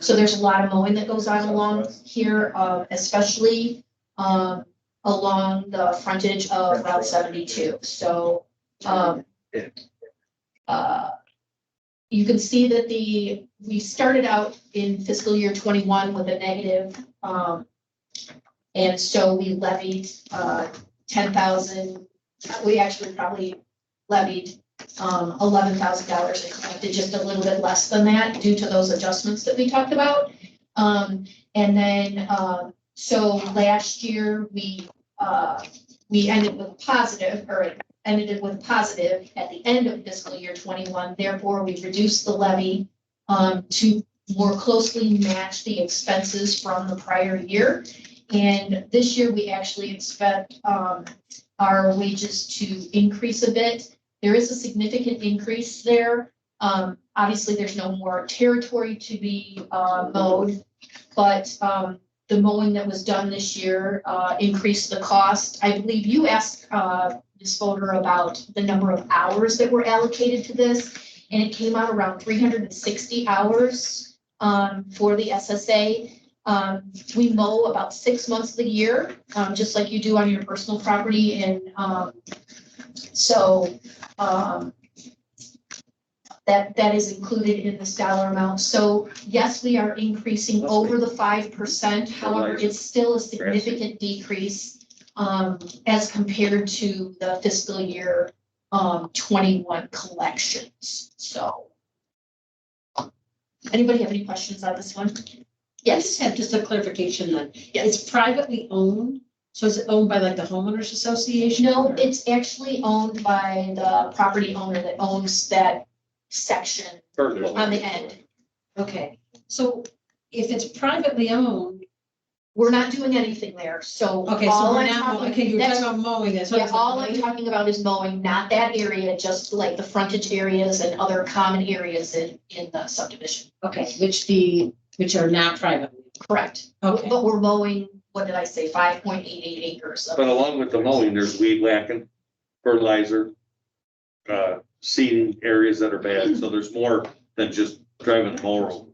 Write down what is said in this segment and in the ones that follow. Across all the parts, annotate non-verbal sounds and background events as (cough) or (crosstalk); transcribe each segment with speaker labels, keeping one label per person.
Speaker 1: So there's a lot of mowing that goes on along here, uh, especially, um, along the frontage of Route seventy-two, so, um, uh, you can see that the, we started out in fiscal year twenty-one with a negative, um, and so we levied, uh, ten thousand, we actually probably levied, um, eleven thousand dollars and collected just a little bit less than that due to those adjustments that we talked about. Um, and then, um, so last year, we, uh, we ended with positive, or ended it with positive at the end of fiscal year twenty-one, therefore, we reduced the levy, um, to more closely match the expenses from the prior year. And this year, we actually expect, um, our wages to increase a bit, there is a significant increase there. Um, obviously, there's no more territory to be, uh, mowed. But, um, the mowing that was done this year, uh, increased the cost. I believe you asked, uh, Ms. Fodor about the number of hours that were allocated to this. And it came out around three hundred and sixty hours, um, for the SSA. Um, we mow about six months of the year, um, just like you do on your personal property and, um, so, um, that, that is included in this dollar amount. So yes, we are increasing over the five percent. However, it's still a significant decrease um, as compared to the fiscal year um, twenty-one collections. So. Anybody have any questions on this one?
Speaker 2: I just
Speaker 1: Yes,
Speaker 2: have just a clarification then. It's privately owned, so is it owned by like the homeowners association?
Speaker 1: no,
Speaker 2: or-
Speaker 1: it's actually owned by the property owner that owns that section on the end.
Speaker 2: Okay, so if it's privately owned,
Speaker 1: We're not doing anything there, so.
Speaker 2: okay, so
Speaker 1: all
Speaker 2: we're
Speaker 1: I'm
Speaker 2: not,
Speaker 1: talking-
Speaker 2: mowing- okay, you were
Speaker 1: that's-
Speaker 2: talking about mowing, that's what. I
Speaker 1: Yeah,
Speaker 2: was
Speaker 1: all I'm
Speaker 2: like,
Speaker 1: talking about is mowing, not that area, just like the frontage areas and other common areas in, in the subdivision.
Speaker 2: Okay, which the, which are not private,
Speaker 1: Correct.
Speaker 2: okay.
Speaker 1: But we're mowing, what did I say, five point eight eight acres of.
Speaker 3: But along with the mowing, there's weed whacking, fertilizer, uh, seeding areas that are bad, so there's more than just driving the mower. over.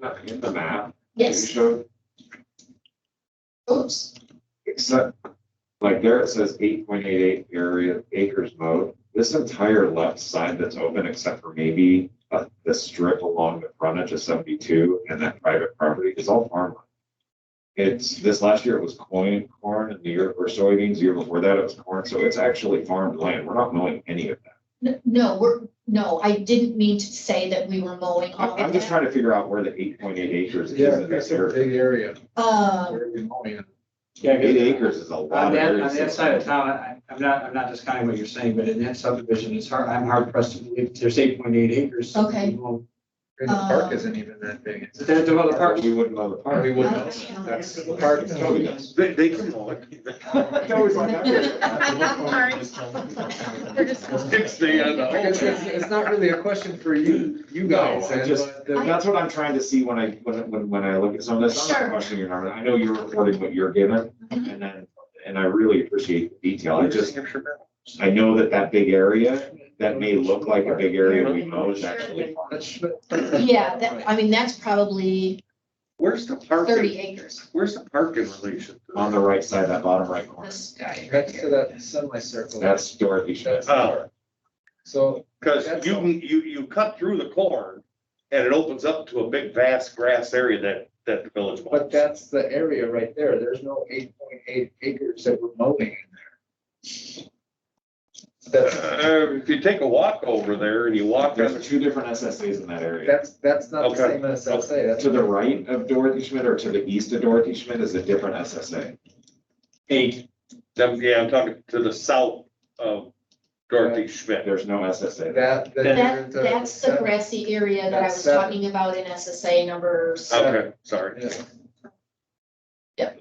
Speaker 4: Nothing in the map. You
Speaker 1: Yes,
Speaker 4: showed,
Speaker 1: oops,
Speaker 4: except, like there it says eight point eight eight area acres mowed. This entire left side that's open, except for maybe uh, the strip along the frontage of seventy-two and that private property, is all farmland. It's, this last year it was corn, corn, and the year before soybeans, the year before that it was corn, so it's actually farmed land. We're not mowing any of that.
Speaker 1: N- no, we're, no, I didn't mean to say that we were mowing all
Speaker 4: I'm
Speaker 1: of
Speaker 4: I'm just
Speaker 1: that.
Speaker 4: trying to figure out where the eight point eight acres is
Speaker 5: Yeah,
Speaker 4: in
Speaker 5: that's
Speaker 4: this
Speaker 5: a
Speaker 4: area.
Speaker 5: big area.
Speaker 1: Uh,
Speaker 5: Where we mowing.
Speaker 6: Yeah,
Speaker 4: Eight
Speaker 6: 'cause
Speaker 4: acres is a lot.
Speaker 6: on
Speaker 4: of
Speaker 6: that,
Speaker 4: area.
Speaker 6: on that side of town, I, I'm not, I'm not discounting what you're saying, but in that subdivision, it's hard, I'm hard pressed to believe there's eight point eight acres.
Speaker 1: Okay.
Speaker 6: Well,
Speaker 5: And The park
Speaker 1: Uh,
Speaker 5: isn't even that big. It's-
Speaker 6: There's the other part.
Speaker 4: We wouldn't mow the park.
Speaker 5: We wouldn't.
Speaker 1: I-
Speaker 5: That's the park. is totally
Speaker 1: (laughs)
Speaker 5: done.
Speaker 3: They, they can mow it. It's the, uh, the whole
Speaker 5: Because It's
Speaker 3: thing.
Speaker 5: it's not really a question for you, you guys.
Speaker 4: No, I
Speaker 5: and, uh,
Speaker 4: just-
Speaker 5: but the-
Speaker 4: That's what I'm trying to see when I, when, when, when I look at some of this, I'm
Speaker 1: Sure.
Speaker 4: not questioning your number, I know you're reporting what you're given,
Speaker 1: Mhm.
Speaker 4: and then, and I really appreciate the detail, I just, I know that that big area, that may look like a big area we know is actually.
Speaker 1: yeah, that, I mean, that's probably
Speaker 3: (laughs) Where's the
Speaker 1: thirty
Speaker 3: parking,
Speaker 1: acres.
Speaker 3: where's the park in relation? to
Speaker 4: On the right side, that bottom right corner,
Speaker 1: This guy right
Speaker 5: That's
Speaker 1: here.
Speaker 5: to that semicircle.
Speaker 4: that's Dorothy Schmidt.
Speaker 5: That's the
Speaker 3: Oh.
Speaker 5: park. So,
Speaker 3: Cause you, can- you, you cut through the corn and it opens up to a big vast grass area that, that the village
Speaker 5: but
Speaker 3: wants.
Speaker 5: that's the area right there. There's no eight point eight acres that we're mowing in there. That's,
Speaker 3: Uh, if you take a walk over there and you walk,
Speaker 4: There's
Speaker 3: that's
Speaker 4: two different SSAs in that area,
Speaker 5: that's, that's not the
Speaker 3: Okay.
Speaker 5: same as I say. That's
Speaker 4: to the right of Dorothy Schmidt or to the east of Dorothy Schmidt is a different SSA.
Speaker 3: eight, then, yeah, I'm talking to the south of Dorothy Schmidt.
Speaker 4: There's no SSA.
Speaker 5: That, that. you're
Speaker 1: That,
Speaker 5: into
Speaker 1: that's the
Speaker 5: seven-
Speaker 1: grassy area that I
Speaker 5: That's
Speaker 1: was
Speaker 5: seven.
Speaker 1: talking about in SSA numbers.
Speaker 3: Okay, sorry.
Speaker 5: Yeah.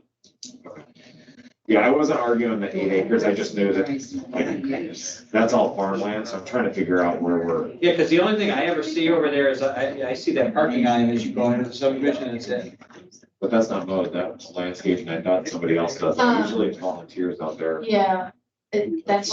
Speaker 4: Yeah, I wasn't arguing the eight acres, I just knew that, like, that's all farmland, so I'm trying to figure out where we're.
Speaker 6: Yeah, because the only thing I ever see over there is I, I see that parking island as you go into the subdivision, and it's it.
Speaker 4: But that's not mowed, that's landscaping, I thought somebody else does, that. usually it's volunteers out there.
Speaker 1: Yeah, it- that's